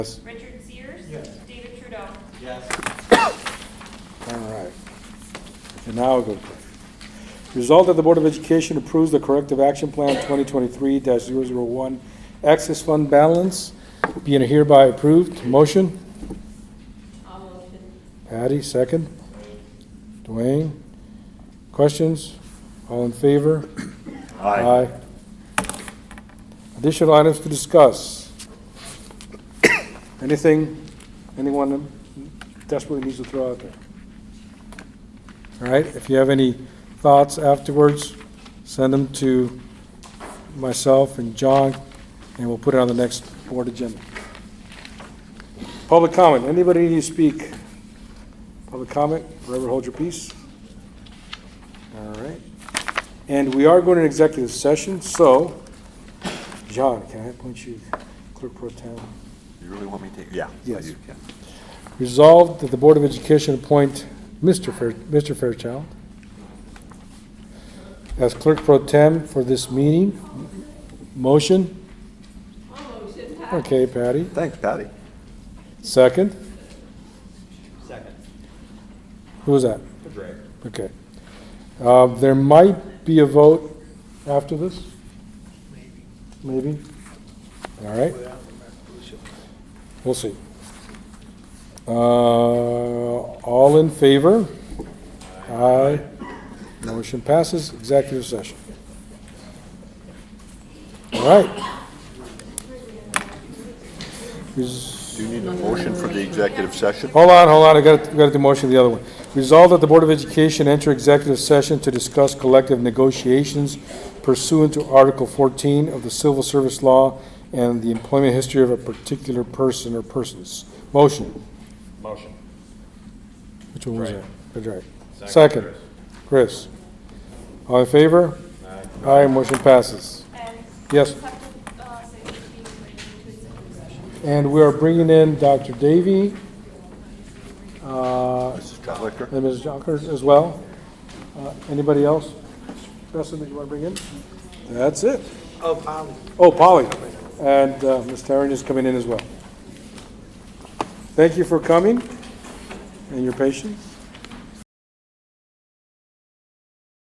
Yes. Richard Sears? Yes. David Trudeau? All right. And now we'll go. Result that the Board of Education approves the corrective action plan 2023-001 excess fund balance being hereby approved. Motion? I'll motion. Patty, second. Dwayne? Questions? All in favor? Aye. Additional items to discuss? Anything, anyone desperately needs to throw out there? All right, if you have any thoughts afterwards, send them to myself and John, and we'll put it on the next board agenda. Public comment, anybody need to speak? Public comment, forever hold your peace. All right. And we are going to executive session, so, John, can I appoint you clerk pro tem? You really want me to? Yeah. Yes. you can. Resolved that the Board of Education appoint Mr. Fair, Mr. Fairchild as clerk pro tem for this meeting. Motion? Okay, Patty. Thanks, Patty. Second? Second. Who was that? Drake. Okay. Uh, There might be a vote after this? Maybe. All right, we'll see. Uh, All in favor? Aye. Motion passes, executive session. All right. Res- Do you need a motion for the executive session? Hold on, hold on, I gotta, gotta do motion to the other one. Resolved that the Board of Education enter executive session to discuss collective negotiations pursuant to Article fourteen of the Civil Service Law and the employment history of a particular person or persons. Motion, Motion. which one was that? That's right. Second, Chris. All in favor? Aye. Aye, motion passes. And Yes, have to, uh, say which meeting we're going to executive session. and we are bringing in Dr. Davy, uh, Mrs. Cutlicker? And Ms. Jonkers as well. Uh, Anybody else? Justin, that you want to bring in? That's it. Oh, Polly. And uh, Ms. Taryn is coming in as well. Thank you for coming and your patience.